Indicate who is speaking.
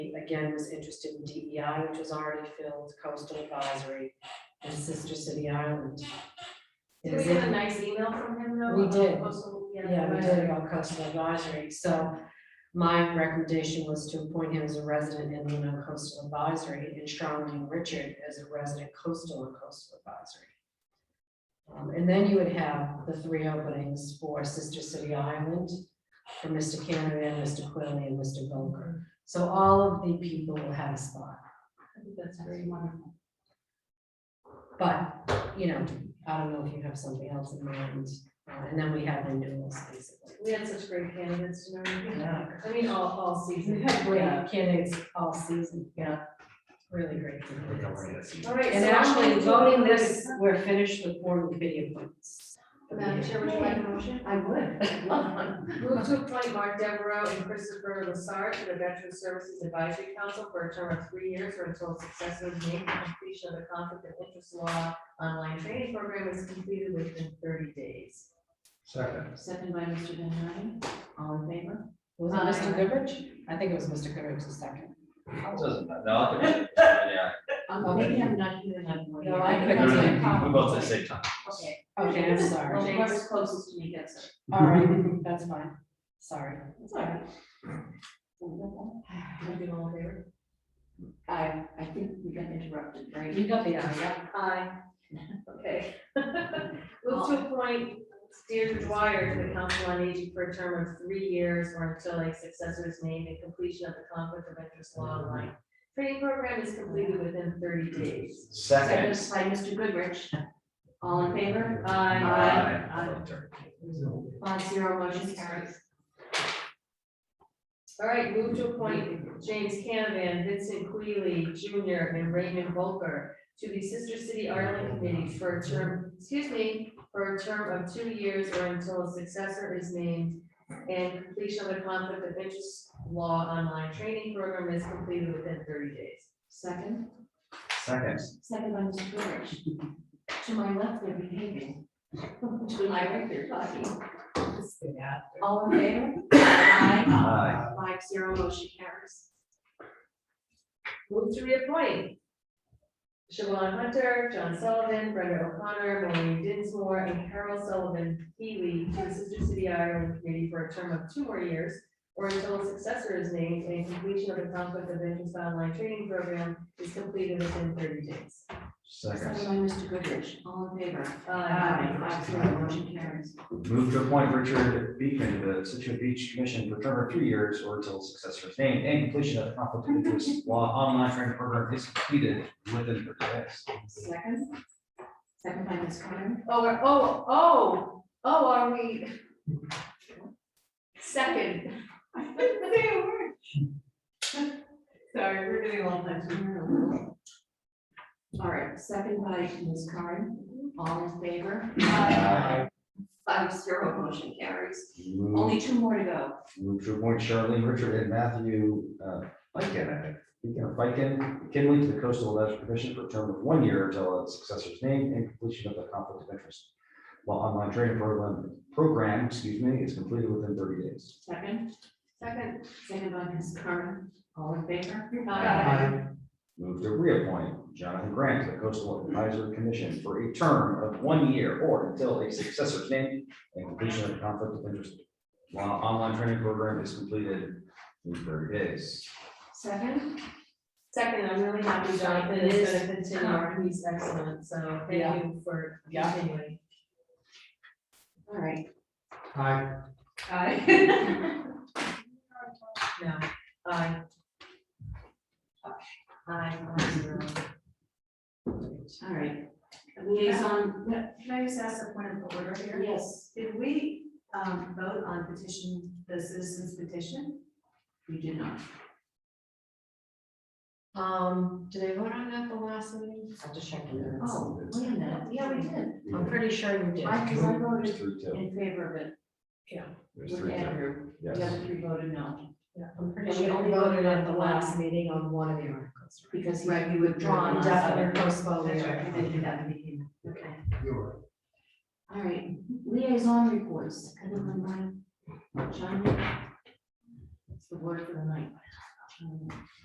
Speaker 1: again, was interested in DEI, which was already filled, coastal advisory, and sister city island.
Speaker 2: Did we get a nice email from him though?
Speaker 1: We
Speaker 2: about
Speaker 1: did.
Speaker 2: coastal-
Speaker 1: Yeah, we did about coastal advisory, so my recommendation was to appoint him as a resident in Lino Coastal Advisory and Charlene Richard as a resident coastal and coastal advisory. Um, and then you would have the three openings for Sister City Island, for Mr. Canavan, Mr. Quilly, and Mr. Bunker. So all of the people will have a spot,
Speaker 2: I think That's very wonderful.
Speaker 1: but, you know, I don't know if you have something else in mind, Uh, and then we have renewals, basically.
Speaker 2: We had such great candidates, you know,
Speaker 1: Yeah.
Speaker 2: I mean, all, all season.
Speaker 1: We have great
Speaker 2: Yeah.
Speaker 1: candidates all season, yeah, really great candidates.
Speaker 2: All right.
Speaker 1: And
Speaker 2: so I'm going
Speaker 1: actually,
Speaker 2: to-
Speaker 1: voting this, we're finished with board and committee appointments.
Speaker 2: Madam Chair, would you like a motion?
Speaker 3: I would, I'd love one.
Speaker 2: Move to appoint Mark Devereaux and Christopher Lassard to the Veteran Services Advisory Council for a term of three years or until a successor is named and completion of the conflict of interest law online training program is completed within thirty days.
Speaker 4: Second.
Speaker 3: Second by Mr. Van Herden, all in favor?
Speaker 1: Was it Mr. Goodrich? Uh, I think it was Mr. Goodrich the second.
Speaker 4: Doesn't matter. No, I think it's- yeah.
Speaker 3: Um, maybe I'm not here enough. for you.
Speaker 1: No, I
Speaker 4: We
Speaker 1: think that's my
Speaker 4: both at the same time.
Speaker 3: Okay.
Speaker 1: Okay, I'm
Speaker 3: Well,
Speaker 1: sorry.
Speaker 3: whoever's closest to me gets it.
Speaker 1: All right, that's fine, sorry.
Speaker 3: It's all right.
Speaker 2: Everyone all in favor?
Speaker 3: I, I think we got interrupted, right?
Speaker 1: You got the idea.
Speaker 2: Aye. Okay. Move to appoint Deirdre Dwyer to the Council on Aging for a term of three years or until a successor is named and completion of the conflict of interest law online training program is completed within thirty days.
Speaker 4: Second.
Speaker 3: Seconded by Mr. Goodrich, all in favor? Aye. Five zero, motion carries.
Speaker 2: All right, move to appoint James Canavan, Vincent Queeley Jr., and Raymond Volker to the Sister City Ireland Committee for a term, excuse me, for a term of two years or until a successor is named and completion of the conflict of interest law online training program is completed within thirty days.
Speaker 3: Second,
Speaker 4: Second.
Speaker 3: second by Mr. Goodrich. To my left, they're behaving. To my right, they're talking. All in favor? Aye.
Speaker 4: Aye.
Speaker 3: Five zero, motion carries.
Speaker 2: Move to reappoint. Siobhan Hunter, John Sullivan, Brenda O'Connor, Maureen Dinsmore, and Carol Sullivan Healy to the Sister City Ireland Committee for a term of two more years or until a successor is named and completion of the conflict of interest online training program is completed within thirty days.
Speaker 3: Second
Speaker 4: Second.
Speaker 3: by Mr. Goodrich, all in favor?
Speaker 2: Aye.
Speaker 3: Five zero, motion carries.
Speaker 4: Move to appoint Richard Beacon to the Situate Beach Commission for a term of three years or until his successor is named and completion of the conflict of interest law online training program is completed within thirty days.
Speaker 3: Second, second by Ms. Connor.
Speaker 2: Oh, we're- oh, oh, oh, are we? Second.
Speaker 3: I couldn't say a word. Sorry, we're doing all that. All right, second by Ms. Karen, all in favor?
Speaker 2: Uh,
Speaker 4: Aye.
Speaker 3: Five zero, motion carries.
Speaker 4: Move
Speaker 3: Only two more to go.
Speaker 4: move to appoint Charlene Richard and Matthew uh, Feikin, I think. Beacon of Feikin, Kinley to the Coastal Advisory Commission for a term of one year until its successor is named and completion of the conflict of interest law online training program, program, excuse me, is completed within thirty days.
Speaker 3: Second,
Speaker 2: Second.
Speaker 3: second by Ms. Karen, all in favor?
Speaker 2: Aye.
Speaker 4: Move to reappoint Jonathan Grant to the Coastal Advisory Commission for a term of one year or until a successor is named and completion of the conflict of interest. While online training program is completed in thirty days.
Speaker 3: Second,
Speaker 2: Second, I'm really happy Jonathan is gonna continue, he's excellent, so
Speaker 1: Yeah.
Speaker 2: thank you for
Speaker 1: Yeah.
Speaker 2: continuing.
Speaker 3: all right.
Speaker 4: Aye.
Speaker 3: Aye.
Speaker 2: No, aye. Aye, aye, zero.
Speaker 3: All right. Liaison,
Speaker 5: Can I just ask a point of order here?
Speaker 3: yes,
Speaker 5: Did we um, vote on petition, the citizens petition?
Speaker 3: we do not.
Speaker 1: Um, did I vote on that the last meeting? I'll just check the minutes.
Speaker 3: Oh, wait a minute, yeah, we did.
Speaker 1: I'm pretty sure you did.
Speaker 3: I, because I
Speaker 4: There's
Speaker 3: voted
Speaker 4: three, two.
Speaker 3: in favor of it
Speaker 4: There's
Speaker 3: with
Speaker 4: three, two.
Speaker 3: Andrew, the
Speaker 4: Yes.
Speaker 3: other three voted no,
Speaker 1: Yeah, I'm pretty
Speaker 3: And
Speaker 1: sure
Speaker 3: we
Speaker 1: you
Speaker 3: only
Speaker 1: voted
Speaker 3: voted
Speaker 1: at the
Speaker 3: on
Speaker 1: last meeting on one of the articles. right?
Speaker 3: because he he withdrew on us.
Speaker 1: Indefinite
Speaker 2: Oh,
Speaker 1: postponement.
Speaker 3: That's right, we did do that in the beginning. okay. All right, liaison reports, kind of on my, John. It's the word for the night. Um,